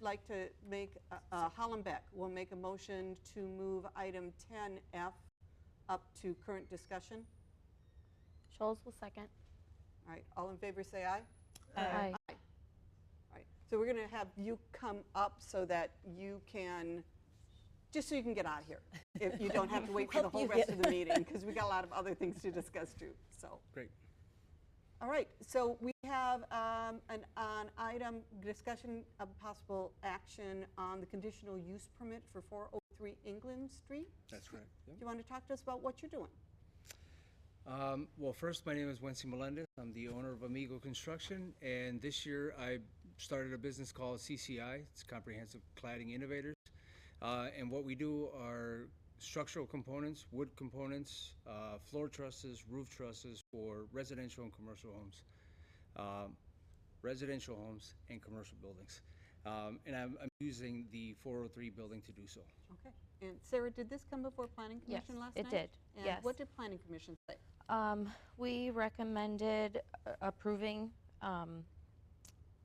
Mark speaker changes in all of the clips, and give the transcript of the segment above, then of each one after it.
Speaker 1: like to make, uh, uh, Hollenbeck will make a motion to move item 10F up to current discussion.
Speaker 2: Scholes will second.
Speaker 1: All right, all in favor, say aye.
Speaker 2: Aye.
Speaker 1: All right, so we're going to have you come up so that you can, just so you can get out of here. If you don't have to wait for the
Speaker 3: Help
Speaker 1: whole
Speaker 3: you
Speaker 1: rest
Speaker 3: get-
Speaker 1: of the meeting, because we got a lot of other things to discuss too, so.
Speaker 4: Great.
Speaker 1: All right, so we have um, an, an item, discussion of possible action on the conditional use permit for 403 England Street.
Speaker 4: That's correct.
Speaker 1: Do you want to talk to us about what you're doing?
Speaker 4: Um, well, first, my name is Wency Melendez. I'm the owner of Amigo Construction, and this year I started a business called CCI. It's Comprehensive Cladding Innovators, uh, and what we do are structural components, wood components, uh, floor trusses, roof trusses for residential and commercial homes, um, residential homes and commercial buildings. Um, and I'm, I'm using the 403 building to do so.
Speaker 1: Okay, and Sarah, did this come before Planning
Speaker 2: Yes,
Speaker 1: Commission last night?
Speaker 2: it did.
Speaker 1: And what
Speaker 2: Yes.
Speaker 1: did Planning Commission say?
Speaker 2: Um, we recommended uh, approving, um,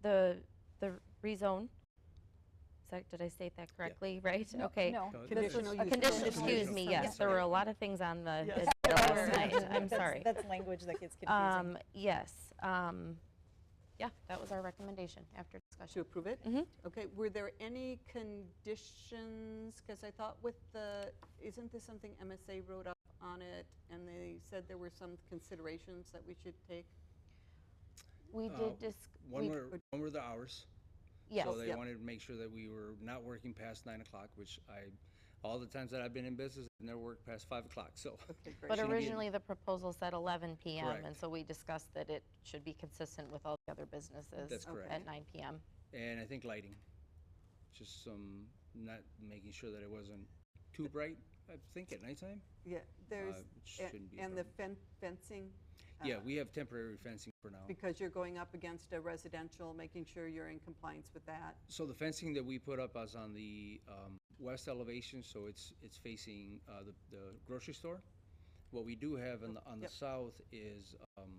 Speaker 2: the, the rezone. Is that- did I state that correctly, right? Okay.
Speaker 3: No.
Speaker 4: So
Speaker 2: This was-
Speaker 1: Conditional
Speaker 2: a
Speaker 1: use
Speaker 2: Condition,
Speaker 1: permit.
Speaker 2: excuse me,
Speaker 4: Conditional
Speaker 2: yes,
Speaker 4: permit.
Speaker 2: there were a lot of things on the,
Speaker 3: Yes.
Speaker 2: agenda last
Speaker 3: That's-
Speaker 2: night, I'm
Speaker 3: that's-
Speaker 2: sorry.
Speaker 3: That's language that gets confusing.
Speaker 2: Um, yes, um, yeah, that was our recommendation after
Speaker 1: To
Speaker 2: discussion.
Speaker 1: approve it?
Speaker 2: Mhm.
Speaker 1: Okay, were there any conditions, because I thought with the, isn't this something MSA wrote up on it? And they said there were some considerations that we should take?
Speaker 2: We
Speaker 4: Uh,
Speaker 2: did dis,
Speaker 4: One
Speaker 2: we,
Speaker 4: were, one were the hours.
Speaker 2: yes,
Speaker 4: So they
Speaker 1: Yep.
Speaker 4: wanted to make sure that we were not working past nine o'clock, which I, all the times that I've been in business, I've never worked past five o'clock, so.
Speaker 1: Okay, great.
Speaker 2: but
Speaker 4: shouldn't be-
Speaker 2: originally the proposal said eleven PM, and
Speaker 4: Correct.
Speaker 2: so we discussed that it should be consistent with all the other businesses.
Speaker 4: That's correct.
Speaker 2: At nine PM.
Speaker 4: And I think lighting, just some, not making sure that it wasn't too bright, I think at nighttime. Uh,
Speaker 1: Yeah, there's,
Speaker 4: it
Speaker 1: a-
Speaker 4: shouldn't be a
Speaker 1: and the fen- fencing?
Speaker 4: Yeah,
Speaker 1: uh,
Speaker 4: we have temporary fencing for now.
Speaker 1: Because you're going up against a residential, making sure you're in compliance with that.
Speaker 4: So the fencing that we put up is on the um, west elevation, so it's, it's facing uh, the- the grocery store. What we do have on the, on the
Speaker 1: Yep.
Speaker 4: south is um,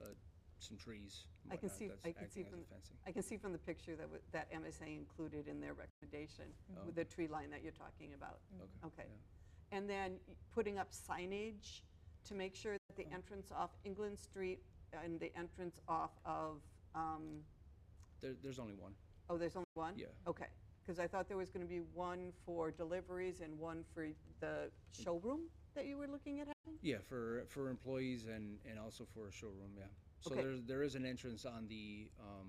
Speaker 4: uh, some trees. and
Speaker 1: I can
Speaker 4: whatnot
Speaker 1: see-
Speaker 4: that's
Speaker 1: I can see
Speaker 4: acting as
Speaker 1: from
Speaker 4: a
Speaker 1: the-
Speaker 4: fencing.
Speaker 1: I can see from the picture that, wa- that MSA included in their recommendation,
Speaker 4: Oh.
Speaker 1: with the tree line that you're talking about.
Speaker 2: Mm-hmm.
Speaker 1: Okay. And then y- putting up signage to make sure that
Speaker 4: Oh.
Speaker 1: the entrance off England Street and the entrance off of, um,
Speaker 4: There, there's only one.
Speaker 1: oh, there's only one?
Speaker 4: Yeah.
Speaker 1: Okay, because I thought there was going to be one for deliveries and one for the showroom that you were looking at having?
Speaker 4: Yeah, for, for employees and, and also for a showroom, yeah. So
Speaker 1: Okay.
Speaker 4: there, there is an entrance on the, um,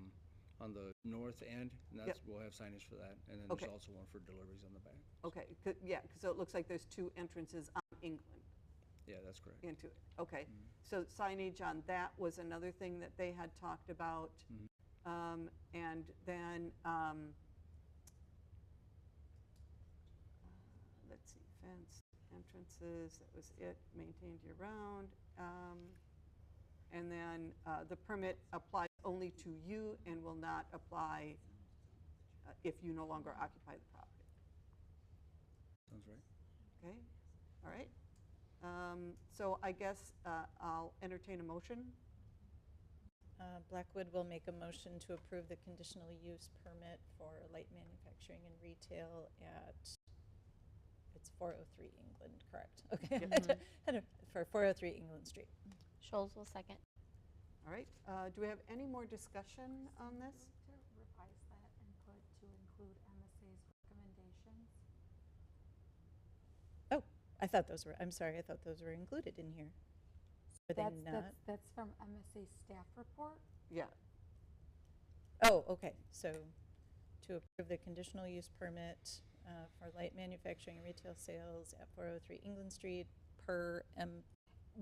Speaker 4: on the north end, and that's, we'll have signage for that. And then
Speaker 1: Okay.
Speaker 4: there's also one for deliveries on the back.
Speaker 1: Okay, 'cause- yeah, so it looks like there's two entrances on England
Speaker 4: Yeah, that's correct.
Speaker 1: into it. Okay, so signage on that was another thing that they had talked about. Um, And then, um, uh, let's see, fenced entrances, that was it, maintained year-round. Um, And then uh, the permit applies only to you and will not apply uh, if you no longer occupy the property.
Speaker 4: Sounds right.
Speaker 1: Okay, all right. Um, So I guess uh, I'll entertain a motion.
Speaker 3: Uh, Blackwood will make a motion to approve the conditional use permit for light manufacturing and retail at, it's 403 England, correct? Okay. I don't- For 403 England Street.
Speaker 2: Scholes will second.
Speaker 1: All right, uh, do we have any more discussion on this?
Speaker 5: To revise that and put to include MSA's recommendations.
Speaker 3: I thought those were, I'm sorry, I thought those were included in here. Are they
Speaker 5: That's-
Speaker 3: not?
Speaker 5: that's- That's from MSA's staff report.
Speaker 1: Yeah,
Speaker 3: Oh, okay, so to approve the conditional use permit uh, for light manufacturing and retail sales at 403 England Street per M,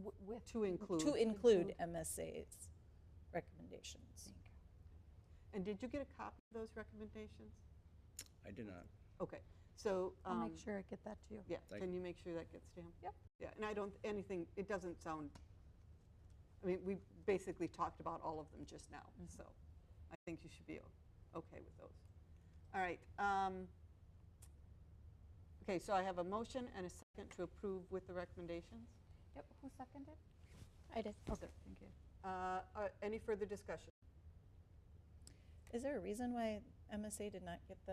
Speaker 5: w- With.
Speaker 1: to include.
Speaker 3: to include MSA's recommendations.
Speaker 1: And did you get a copy of those recommendations?
Speaker 4: I did not.
Speaker 1: Okay, so.
Speaker 5: I'll make
Speaker 1: um,
Speaker 5: sure I get that to you.
Speaker 1: Yeah,
Speaker 4: Thank-
Speaker 1: can you make sure that gets to him?
Speaker 3: Yep.
Speaker 1: Yeah, and I don't, anything, it doesn't sound, I mean, we basically talked about all of them just now,
Speaker 5: Mm-hmm.
Speaker 1: so I think you should be o- okay with those. All right. um, Okay, so I have a motion and a second to approve with the recommendations.
Speaker 5: Yep, who seconded?
Speaker 2: I did.
Speaker 1: Okay, thank you. Uh, uh, Any further discussion?
Speaker 3: Is there a reason why MSA did not get the